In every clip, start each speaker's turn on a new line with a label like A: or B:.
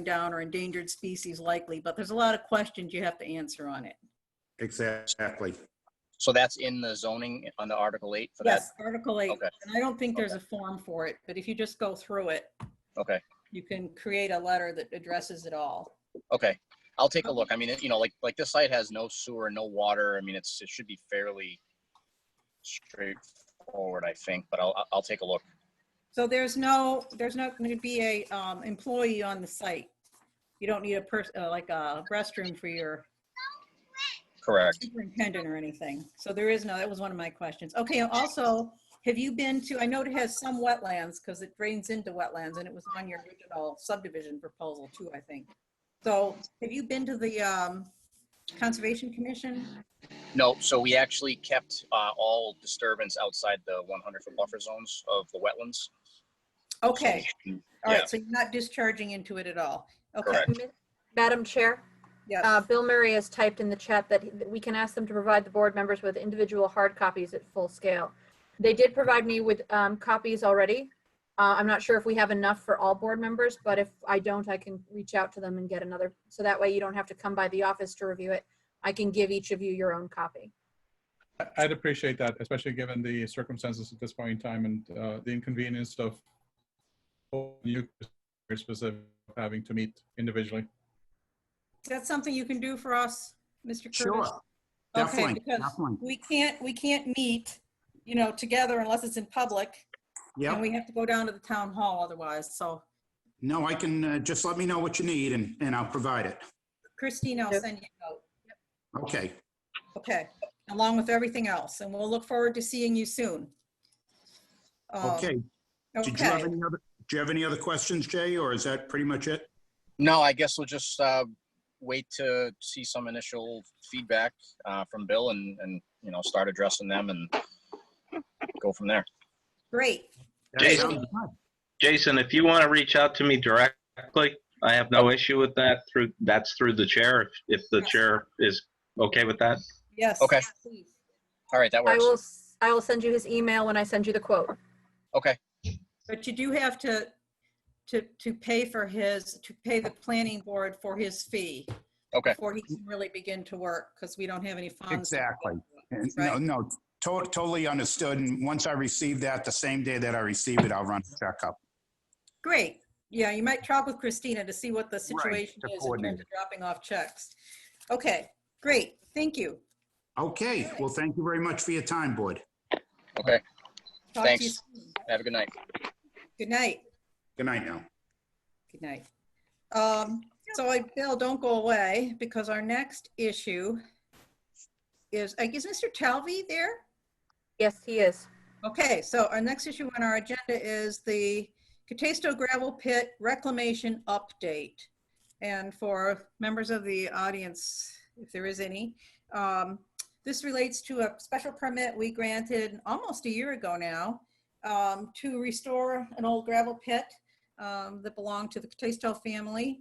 A: down or endangered species likely, but there's a lot of questions you have to answer on it.
B: Exactly.
C: So that's in the zoning on the Article 8 for that?
A: Yes, Article 8.
C: Okay.
A: And I don't think there's a form for it, but if you just go through it,
C: Okay,
A: you can create a letter that addresses it all.
C: okay. I'll take a look. I mean, it- you know, like, like this site has no sewer, no water. I mean, it's, it should be fairly straightforward, I think, but I'll, I'll- I'll take a look.
A: So there's no, there's not going to be a um, employee on the site. You don't need a person, like a restroom for your
C: Correct.
A: superintendent or anything. So there is no, that was one of my questions. Okay, also, have you been to, I know it has some wetlands because it drains into wetlands and it was on your original subdivision proposal too, I think. So have you been to the um, Conservation Commission?
C: No, so we actually kept uh, all disturbance outside the 100-foot buffer zones of the wetlands.
A: Okay, all
C: Yeah.
A: right, so you're not discharging into it at all. Okay,
C: Correct.
D: Madam Chair,
A: yeah,
D: uh, Bill Murray has typed in the chat that he- that we can ask them to provide the board members with individual hard copies at full scale. They did provide me with um, copies already. Uh, I'm not sure if we have enough for all board members, but if I don't, I can reach out to them and get another. So that way you don't have to come by the office to review it. I can give each of you your own copy.
E: I- I'd appreciate that, especially given the circumstances at this point in time and uh, the inconvenience of you specific having to meet individually.
A: is that something you can do for us, Mr. Curtis?
B: Sure.
A: Okay,
B: Definitely,
A: because-
B: definitely.
A: We can't, we can't meet, you know, together unless it's in public. And
B: Yep.
A: we have to go down to the town hall otherwise, so
B: No, I can, uh, just let me know what you need and, and I'll provide it.
A: Christine, I'll
D: Yep.
A: send you a note.
B: Okay.
A: Okay, along with everything else, and we'll look forward to seeing you soon. Um,
B: Okay. Did you have
A: Okay,
B: any other, do you have any other questions, Jay, or is that pretty much it?
C: No, I guess we'll just uh, wait to see some initial feedback uh, from Bill and, and, you know, start addressing them and go from there.
A: great.
B: That
F: Jason.
B: sounds good.
F: Jason, if you want to reach out to me directly, I have no issue with that. Through, that's through the chair, if, if the chair is okay with that.
A: Yes.
C: Okay.
A: please.
C: All right, that
D: I
C: works.
D: will, s- I will send you his email when I send you the quote.
C: Okay,
A: But you do have to, to, to pay for his, to pay the planning board for his fee.
C: Okay.
A: Before he can really begin to work, because we don't have any funds.
B: Exactly. And No,
A: Right.
B: no, to- totally understood. And once I receive that, the same day that I receive it, I'll run a checkup.
A: Great. Yeah, you might talk with Christina to see what the situation
B: to
A: is in
B: coordinate
A: terms of dropping off checks. Okay, great. Thank you.
B: Okay, well, thank you very much for your time, board.
C: okay.
A: Talk to you
C: Thanks.
A: soon.
C: Have a good night.
A: Good night.
B: Good night now.
A: Good night. Um, so I, Bill, don't go away because our next issue is, I guess, Mr. Talvey there?
D: Yes, he is.
A: Okay, so our next issue on our agenda is the Catasto gravel pit reclamation update. And for members of the audience, if there is any, um, this relates to a special permit we granted almost a year ago now um, to restore an old gravel pit um, that belonged to the Catasto family.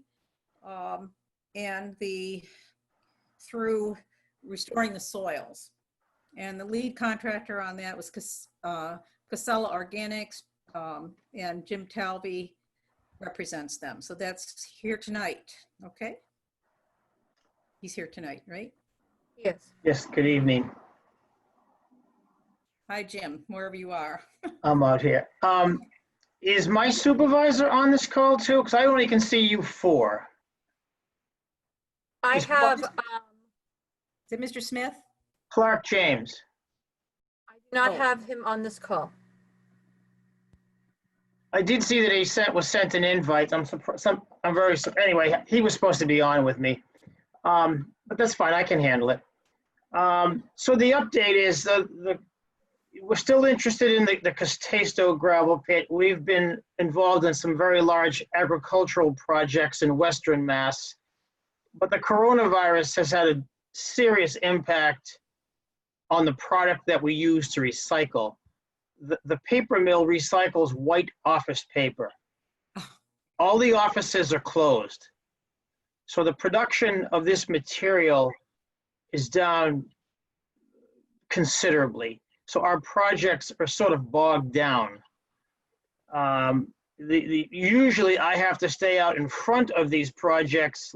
A: um, And the, through restoring the soils. And the lead contractor on that was Cas- uh, Casella Organics, um, and Jim Talby represents them. So that's here tonight, okay? He's here tonight, right?
D: He is.
G: Yes, good evening.
A: Hi, Jim, wherever you are.
G: I'm out here. Um, is my supervisor on this call too? Because I only can see you four.
D: I
G: Is-
D: have, um,
A: Is it Mr. Smith?
G: Clark James.
D: I do not
A: Oh.
D: have him on this call.
G: I did see that he sent, was sent an invite. I'm surprised, some, I'm very, sur- anyway, he was supposed to be on with me. Um, but that's fine, I can handle it. Um, so the update is the, the, we're still interested in the, the Castesto gravel pit. We've been involved in some very large agricultural projects in Western Mass. But the coronavirus has had a serious impact on the product that we use to recycle the, the paper mill recycles white office paper. All the offices are closed. So the production of this material is down considerably. So our projects are sort of bogged down. Um, the, the, usually I have to stay out in front of these projects